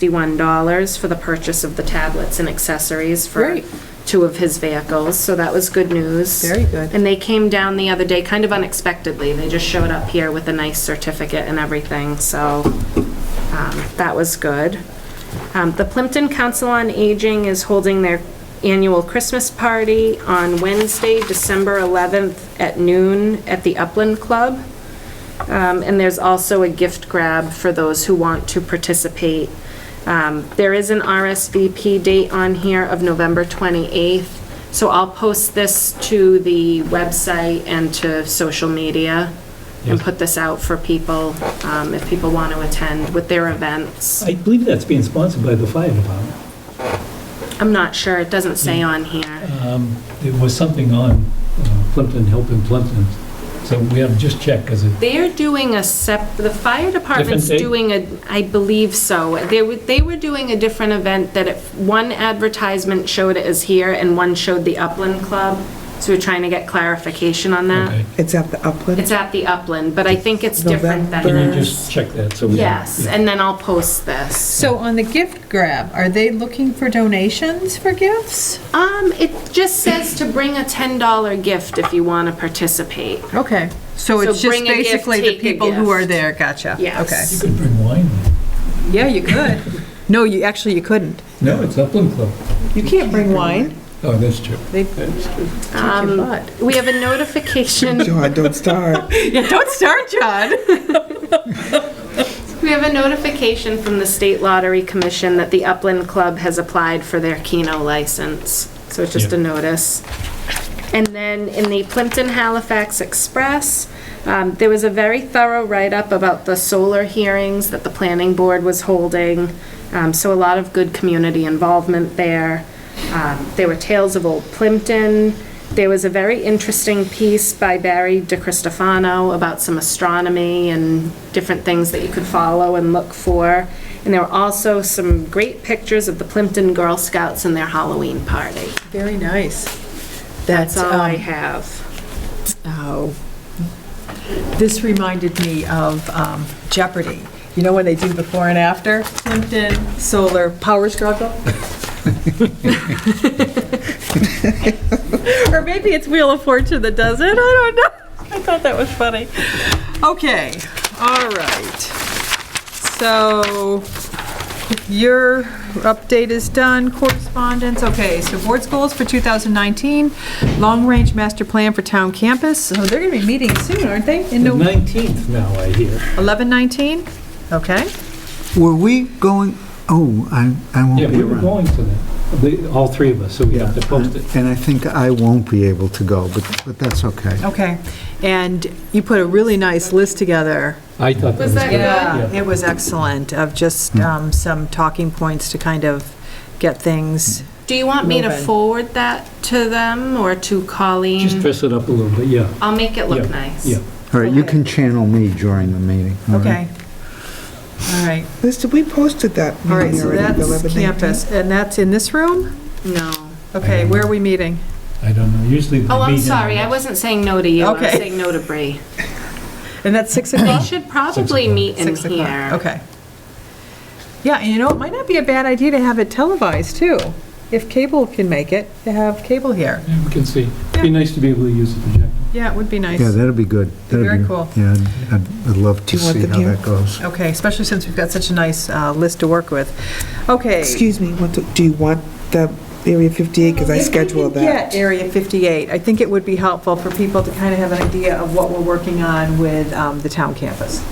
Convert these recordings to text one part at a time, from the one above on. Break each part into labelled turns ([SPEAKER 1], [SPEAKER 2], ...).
[SPEAKER 1] $1,061 for the purchase of the tablets and accessories for
[SPEAKER 2] Great.
[SPEAKER 1] two of his vehicles, so that was good news.
[SPEAKER 2] Very good.
[SPEAKER 1] And they came down the other day, kind of unexpectedly. They just showed up here with a nice certificate and everything, so um, that was good. Um, The Plimpton Council on Aging is holding their annual Christmas party on Wednesday, December 11th at noon at the Upland Club. Um, And there's also a gift grab for those who want to participate. Um, There is an RSVP date on here of November 28th, so I'll post this to the website and to social media and put this out for people, um, if people want to attend with their events.
[SPEAKER 3] I believe that's being sponsored by the fire department.
[SPEAKER 1] I'm not sure, it doesn't say on here.
[SPEAKER 3] Um, There was something on uh, Plimpton, helping Plimpton, so we have to just check, because it,
[SPEAKER 1] They're doing a sep, the fire department's
[SPEAKER 3] date?
[SPEAKER 1] doing a, I believe so. They were, they were doing a different event that if, one advertisement showed it as here and one showed the Upland Club, so we're trying to get clarification on
[SPEAKER 3] okay.
[SPEAKER 1] that.
[SPEAKER 2] It's at the Upland.
[SPEAKER 1] It's at the Upland, but I think it's different than
[SPEAKER 3] Can you
[SPEAKER 1] this.
[SPEAKER 3] just check that, so we...
[SPEAKER 1] Yes, and then I'll post this.
[SPEAKER 2] So on the gift grab, are they looking for donations for gifts?
[SPEAKER 1] Um, it just says to bring a $10 gift if you want to participate.
[SPEAKER 2] Okay, so
[SPEAKER 1] So
[SPEAKER 2] it's just
[SPEAKER 1] bring a gift,
[SPEAKER 2] basically the
[SPEAKER 1] take a
[SPEAKER 2] people who are
[SPEAKER 1] gift.
[SPEAKER 2] there, gotcha.
[SPEAKER 1] Yes.
[SPEAKER 3] You could bring wine.
[SPEAKER 2] Okay. Yeah, you could. No, you, actually, you couldn't.
[SPEAKER 3] No, it's Upland Club.
[SPEAKER 2] You can't bring wine.
[SPEAKER 3] Oh, that's true.
[SPEAKER 2] They
[SPEAKER 1] Um, We have a notification
[SPEAKER 4] John, don't start.
[SPEAKER 2] Yeah, don't start, John.
[SPEAKER 1] We have a notification from the State Lottery Commission that the Upland Club has applied for their Keno license. So it's just a
[SPEAKER 3] Yeah.
[SPEAKER 1] notice. And then in the Plimpton Halifax Express, um, there was a very thorough write-up about the solar hearings that the planning board was holding. Um, So a lot of good community involvement there. Um, There were tales of old Plimpton. There was a very interesting piece by Barry DiCristofano about some astronomy and different things that you could follow and look for. And there were also some great pictures of the Plimpton Girl Scouts and their Halloween party.
[SPEAKER 2] Very nice.
[SPEAKER 1] That's all I
[SPEAKER 2] um,
[SPEAKER 1] have.
[SPEAKER 2] Oh. This reminded me of um, Jeopardy. You know when they do before and after? Plimpton, solar, power struggle? Or maybe it's Wheel of Fortune that does it, I don't know. I thought that was funny. Okay, all right. So your update is done, correspondence, okay, so board's goals for 2019, long-range master plan for town campus, so they're gonna be meeting soon, aren't they? In
[SPEAKER 3] The
[SPEAKER 2] November
[SPEAKER 3] 19th now, I hear.
[SPEAKER 2] 11/19? Okay,
[SPEAKER 4] Were we going, oh, I, I
[SPEAKER 3] Yeah,
[SPEAKER 4] won't be
[SPEAKER 3] we were
[SPEAKER 4] around.
[SPEAKER 3] going to that, The- all three of us, so we have to post it.
[SPEAKER 4] And I think I won't be able to go, but, but that's okay.
[SPEAKER 2] okay. And you put a really nice list together.
[SPEAKER 3] I thought that was...
[SPEAKER 1] Was that
[SPEAKER 3] good.
[SPEAKER 1] Yeah.
[SPEAKER 2] It was excellent, of
[SPEAKER 4] Hmm.
[SPEAKER 2] just um, some talking points to kind of get things,
[SPEAKER 1] Do you want me to
[SPEAKER 2] Moving.
[SPEAKER 1] forward that to them or to
[SPEAKER 3] Just
[SPEAKER 1] Colleen?
[SPEAKER 3] dress it up a little bit, yeah.
[SPEAKER 1] I'll make it look
[SPEAKER 3] Yeah,
[SPEAKER 1] nice.
[SPEAKER 3] Yeah,
[SPEAKER 4] All right, you can channel me during the meeting. all right?
[SPEAKER 2] okay. All right,
[SPEAKER 5] Liz, did we posted that
[SPEAKER 2] all right,
[SPEAKER 5] meeting
[SPEAKER 2] so
[SPEAKER 5] already, the
[SPEAKER 2] that's
[SPEAKER 5] 11
[SPEAKER 2] campus, and that's in this room?
[SPEAKER 1] No.
[SPEAKER 2] Okay, where are we meeting?
[SPEAKER 3] I don't know, usually... we
[SPEAKER 1] Oh, I'm
[SPEAKER 3] meet in-
[SPEAKER 1] sorry, I wasn't saying no to you, I was
[SPEAKER 2] Okay.
[SPEAKER 1] saying no to Bree.
[SPEAKER 2] And that's 6
[SPEAKER 1] They
[SPEAKER 2] o'clock?
[SPEAKER 1] should probably meet in
[SPEAKER 2] Six o'clock.
[SPEAKER 1] here.
[SPEAKER 2] Okay. Yeah, and you know, it might not be a bad idea to have it televised, too. If cable can make it, to have cable here.
[SPEAKER 3] Yeah, we can see. It'd
[SPEAKER 2] Yeah.
[SPEAKER 3] be nice to be able to use the projector.
[SPEAKER 2] Yeah, it would be nice.
[SPEAKER 4] Yeah, that'll be good. That'll
[SPEAKER 2] Very
[SPEAKER 4] be-
[SPEAKER 2] cool.
[SPEAKER 4] Yeah, I'd- I'd, I'd love to
[SPEAKER 5] Do you want
[SPEAKER 4] see
[SPEAKER 5] them
[SPEAKER 4] how
[SPEAKER 5] here?
[SPEAKER 4] that goes.
[SPEAKER 2] Okay, especially since we've got such a nice uh, list to work with. Okay.
[SPEAKER 5] Excuse me, what do do you want the Area 58, because I
[SPEAKER 2] If we could
[SPEAKER 5] scheduled that.
[SPEAKER 2] get Area 58, I think it would be helpful for people to kind of have an idea of what we're working on with um, the town campus.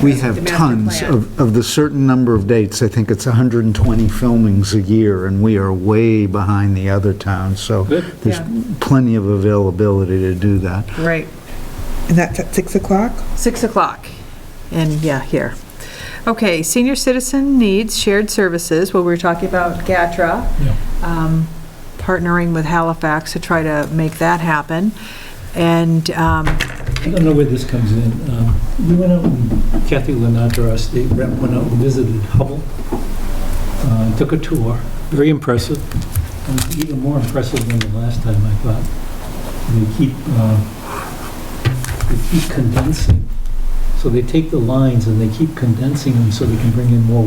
[SPEAKER 4] We have
[SPEAKER 2] master
[SPEAKER 4] tons
[SPEAKER 2] plan.
[SPEAKER 4] of, of the certain number of dates, I think it's 120 filmings a year, and we are way behind the other towns, so
[SPEAKER 3] Good.
[SPEAKER 4] there's
[SPEAKER 2] Yeah.
[SPEAKER 4] plenty of availability to do that.
[SPEAKER 2] Right.
[SPEAKER 5] And that's at 6 o'clock?
[SPEAKER 2] 6 o'clock, and yeah, here. Okay, senior citizen needs shared services, well, we were talking about GATRA,
[SPEAKER 3] Yeah.
[SPEAKER 2] um, partnering with Halifax to try to make that happen, and, um,
[SPEAKER 3] I don't know where this comes in. Um, We went out, and Kathy Lenander, our state rep, went out and visited Hubble, uh, took a tour, very impressive, and even more impressive than the last time, I thought. They keep, uh, they keep condensing, so they take the lines and they keep condensing them so they can bring in more